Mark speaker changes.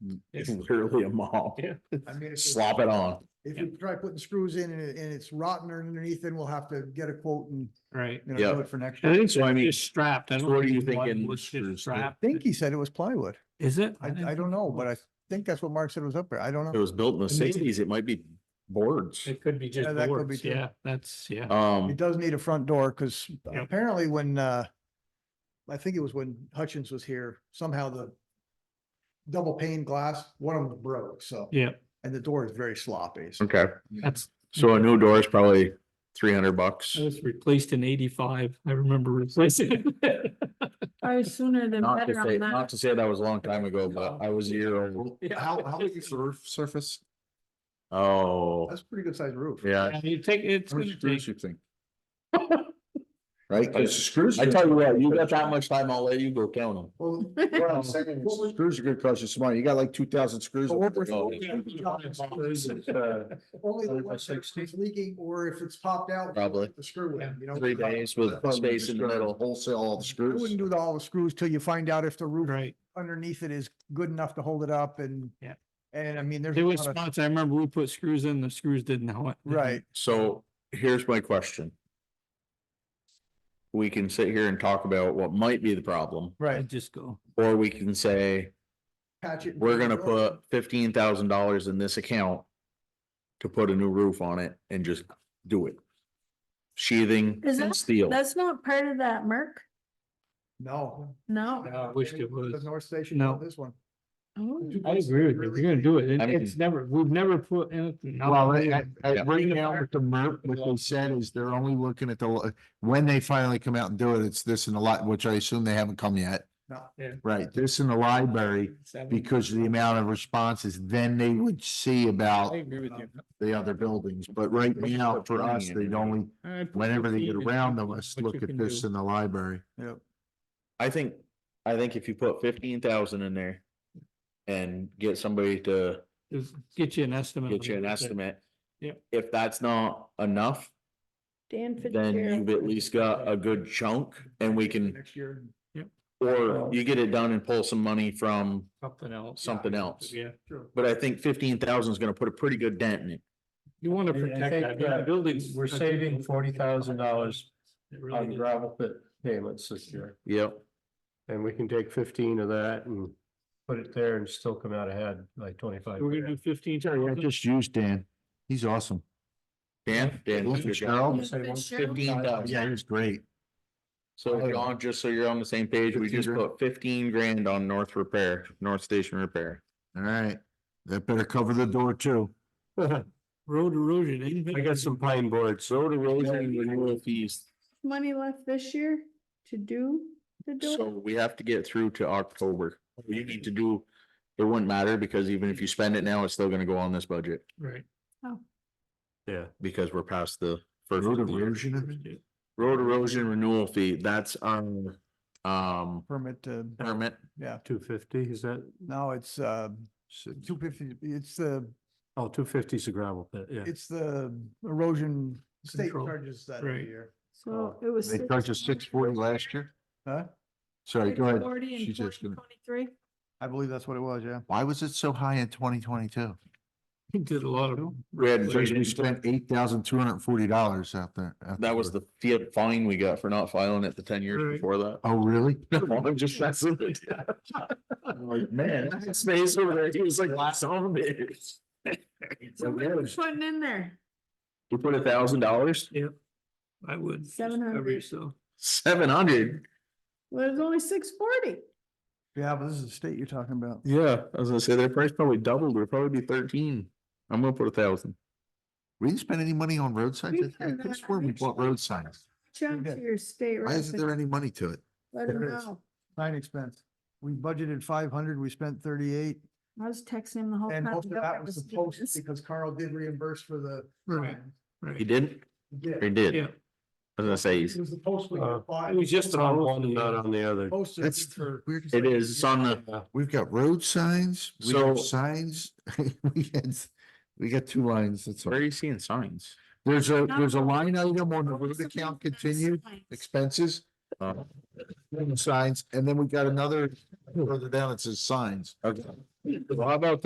Speaker 1: It's
Speaker 2: Yeah.
Speaker 1: literally a mall.
Speaker 2: Yeah.
Speaker 3: I mean, if,
Speaker 1: Slop it on.
Speaker 3: if you try putting screws in and, it- and it's rotten underneath, then we'll have to get a quote and,
Speaker 2: Right.
Speaker 3: you
Speaker 1: Yeah.
Speaker 3: know, do it for next
Speaker 2: I
Speaker 3: year.
Speaker 2: think
Speaker 1: So, I
Speaker 2: it's
Speaker 1: mean,
Speaker 2: just strapped. I don't
Speaker 1: what are you
Speaker 2: think one
Speaker 1: thinking
Speaker 2: was just
Speaker 1: for- for-
Speaker 3: I
Speaker 2: strapped.
Speaker 3: think he said it was plywood.
Speaker 2: Is it?
Speaker 3: I,
Speaker 2: didn't
Speaker 3: I don't know, but I think that's what Mark said was up there. I don't
Speaker 1: It
Speaker 3: know.
Speaker 1: was built in the sixties. It might be boards.
Speaker 2: It could be just
Speaker 3: Yeah, that could be
Speaker 2: boards.
Speaker 3: too.
Speaker 2: Yeah, that's, yeah.
Speaker 1: Um,
Speaker 3: It does need a front door because
Speaker 2: Yep.
Speaker 3: apparently when, uh, I think it was when Hutchins was here, somehow the double pane glass, one of them broke, so.
Speaker 2: Yeah,
Speaker 3: And the door is very sloppy. so-
Speaker 1: okay,
Speaker 2: that's,
Speaker 1: so a new door is probably three hundred bucks.
Speaker 2: that was replaced in eighty-five. I remember replacing it.
Speaker 4: Probably sooner than
Speaker 1: Not to
Speaker 4: better
Speaker 1: say,
Speaker 4: on
Speaker 1: not
Speaker 4: that.
Speaker 1: to say that was a long time ago, but I was a year old.
Speaker 2: Yeah.
Speaker 5: How, how big is the roof surface?
Speaker 1: Oh,
Speaker 3: That's a pretty good sized roof.
Speaker 1: yeah,
Speaker 2: Yeah, You take, it's
Speaker 5: How many
Speaker 2: gonna
Speaker 5: screws
Speaker 2: take,
Speaker 5: you think?
Speaker 1: right?
Speaker 5: Because Screws.
Speaker 1: I tell you what, you got that much time, I'll let you go count them.
Speaker 3: Well,
Speaker 5: What I'm saying is Screws are gonna cost you some money. You got like two thousand screws.
Speaker 3: But what we're-
Speaker 5: Oh,
Speaker 2: uh,
Speaker 3: only the
Speaker 5: Hundred by
Speaker 3: ones that
Speaker 5: sixty.
Speaker 3: it's leaking or if it's popped out.
Speaker 1: Probably.
Speaker 3: The screw in, you know.
Speaker 1: Three days with space in the middle.
Speaker 5: Wholesale all the
Speaker 3: I
Speaker 5: screws.
Speaker 3: wouldn't do the- all the screws till you find out if the roof
Speaker 2: right.
Speaker 3: underneath it is good enough to hold it up and.
Speaker 2: Yeah.
Speaker 3: And I mean, there's.
Speaker 2: There
Speaker 3: a
Speaker 2: was
Speaker 3: lot of-
Speaker 2: spots, I remember we put screws in, the screws didn't know it.
Speaker 3: Right.
Speaker 1: So here's my question. We can sit here and talk about what might be the problem,
Speaker 2: I
Speaker 3: Right.
Speaker 2: just go.
Speaker 1: or we can say,
Speaker 3: Patch it. and
Speaker 1: we're
Speaker 3: put it
Speaker 1: gonna
Speaker 3: on.
Speaker 1: put fifteen thousand dollars in this account to put a new roof on it and just do it. Sheathing
Speaker 4: Is
Speaker 1: and
Speaker 4: that-
Speaker 1: steel.
Speaker 4: That's not part of that, Merc?
Speaker 3: No.
Speaker 4: No.
Speaker 2: I wished it was.
Speaker 3: The North Station, no,
Speaker 2: No.
Speaker 3: this one.
Speaker 4: Oh.
Speaker 2: I agree with you. If You're gonna do it. it-
Speaker 1: I mean-
Speaker 2: It's never, we've never put anything.
Speaker 5: Well, I- I- I-
Speaker 1: Yeah.
Speaker 5: right now with the MERP, what they said is they're only looking at the, when they finally come out and do it, it's this and the lot, which I assume they haven't come yet.
Speaker 3: No.
Speaker 2: Yeah.
Speaker 5: Right, this in the library
Speaker 2: Seven.
Speaker 5: because of the amount of responses, then they would see
Speaker 2: I
Speaker 5: about
Speaker 2: agree with you.
Speaker 5: the other buildings, but right now for us, they only,
Speaker 2: I put
Speaker 5: whenever they get
Speaker 2: 15 is
Speaker 5: around to us,
Speaker 2: what
Speaker 5: look
Speaker 2: you
Speaker 5: at
Speaker 2: can
Speaker 5: this
Speaker 2: do.
Speaker 5: in the library.
Speaker 3: Yep.
Speaker 1: I think, I think if you put fifteen thousand in there and get somebody to
Speaker 2: Just Get you an estimate.
Speaker 1: get you an
Speaker 2: on it.
Speaker 1: estimate.
Speaker 2: Yep.
Speaker 1: If that's not enough,
Speaker 4: Dan
Speaker 1: then you've
Speaker 4: Fitzgerald.
Speaker 1: at least got a good chunk and we can,
Speaker 3: Next year.
Speaker 1: or you get it done and pull some money from,
Speaker 2: Something else.
Speaker 1: Something else.
Speaker 2: Yeah.
Speaker 3: Sure.
Speaker 1: but I think fifteen thousand is gonna put a pretty good dent in it.
Speaker 2: You wanna
Speaker 6: I- I
Speaker 2: protect
Speaker 6: think,
Speaker 2: that. I mean, the
Speaker 6: yeah,
Speaker 2: buildings.
Speaker 6: We're saving forty thousand dollars
Speaker 2: It really
Speaker 6: on
Speaker 2: is.
Speaker 6: gravel pit payments this year,
Speaker 1: Yep.
Speaker 6: and we can take fifteen of that and put it there and still come out ahead like twenty-five.
Speaker 2: We're gonna do fifteen.
Speaker 5: I just used Dan. He's awesome.
Speaker 1: Dan, Dan.
Speaker 5: Look
Speaker 1: that's
Speaker 5: at
Speaker 1: your job.
Speaker 5: Cheryl.
Speaker 1: Fifteen thousand.
Speaker 5: Yeah, he's great. Oh,
Speaker 1: So John, just so you're on the same page, we
Speaker 5: 15
Speaker 1: just
Speaker 5: grand.
Speaker 1: put fifteen grand on North Repair, North Station Repair.
Speaker 5: All right, that better cover the door too.
Speaker 2: Road erosion. ain't been-
Speaker 6: I got some pine boards, so
Speaker 1: Road erosion and renewal fees,
Speaker 4: Money left this year to do the
Speaker 1: so
Speaker 4: door?
Speaker 1: we have to get through to October. You need to do, it wouldn't matter because even if you spend it now, it's still gonna go on this budget
Speaker 2: Right.
Speaker 6: yeah.
Speaker 1: because we're past the first.
Speaker 5: Road
Speaker 1: of the year.
Speaker 5: erosion, I think?
Speaker 1: Road erosion renewal fee, that's on, um,
Speaker 3: Permit, uh,
Speaker 1: permit.
Speaker 3: yeah,
Speaker 6: Two fifty, is that,
Speaker 3: no, it's, uh, two fifty, it's the,
Speaker 6: oh, two fifty's a gravel pit, yeah.
Speaker 3: it's the erosion state
Speaker 2: Control.
Speaker 3: charges that every
Speaker 2: Right.
Speaker 3: year.
Speaker 4: So it was.
Speaker 5: uh, They charged us six forty last year.
Speaker 3: Huh?
Speaker 5: Sorry, go ahead.
Speaker 4: Forty and
Speaker 5: She's just gonna-
Speaker 4: twenty-three.
Speaker 3: I believe that's what it was, yeah.
Speaker 5: Why was it so high in twenty twenty-two?
Speaker 2: He did a lot of.
Speaker 1: We had,
Speaker 5: Because we spent eight thousand two hundred and forty dollars out there. out
Speaker 1: that was
Speaker 5: there.
Speaker 1: the fi- fine we got for not filing it the ten years
Speaker 2: Right.
Speaker 1: before that.
Speaker 5: Oh, really?
Speaker 1: No, I'm just messing with you. I'm Like, man, that space over there, he was like zombies.
Speaker 4: So what are we putting in there?
Speaker 1: We put a thousand dollars,
Speaker 2: I would. just
Speaker 4: Seven
Speaker 2: cover
Speaker 4: hundred.
Speaker 2: yourself.
Speaker 1: seven hundred.
Speaker 4: Well, it's only six forty.
Speaker 3: Yeah, but this is the state you're talking about.
Speaker 1: Yeah, I was gonna say their price probably doubled, it'd probably be thirteen. I'm gonna put a thousand.
Speaker 5: We didn't spend any money on road signs? I think- I could swear we bought road signs.
Speaker 4: Jump to your state.
Speaker 5: Why isn't there
Speaker 4: representative.
Speaker 5: any money to it?
Speaker 4: Let him
Speaker 3: There is.
Speaker 4: know.
Speaker 3: Sign expense. We budgeted five hundred, we spent thirty-eight,
Speaker 4: I was texting him the whole time.
Speaker 3: and most of
Speaker 4: Don't
Speaker 3: that
Speaker 4: ever
Speaker 3: was the
Speaker 4: see
Speaker 3: post
Speaker 4: this.
Speaker 3: because Carl did reimburse for the.
Speaker 2: Right.
Speaker 3: sign.
Speaker 1: He
Speaker 2: Right.
Speaker 1: didn't,
Speaker 3: Yeah,
Speaker 1: he did.
Speaker 2: Yeah.
Speaker 1: I was gonna say,
Speaker 3: it was the post. we
Speaker 6: Uh,
Speaker 3: applied-
Speaker 2: It was just on one,
Speaker 6: Not
Speaker 2: not
Speaker 6: on the other.
Speaker 3: Posted
Speaker 5: That's
Speaker 3: for.
Speaker 5: weirdest.
Speaker 1: it is, it's on the,
Speaker 5: We've got road signs, we have
Speaker 1: So-
Speaker 5: signs, we had, we got two lines, that's all.
Speaker 1: where are you seeing signs?
Speaker 5: There's a,
Speaker 4: Not
Speaker 5: there's a
Speaker 4: on-
Speaker 5: line item on the road
Speaker 4: Something
Speaker 5: account
Speaker 4: like that
Speaker 5: continued
Speaker 4: signs.
Speaker 5: expenses,
Speaker 1: Uh,
Speaker 5: signs, and then we got another further down, it says signs.
Speaker 1: Okay.
Speaker 2: Well, how about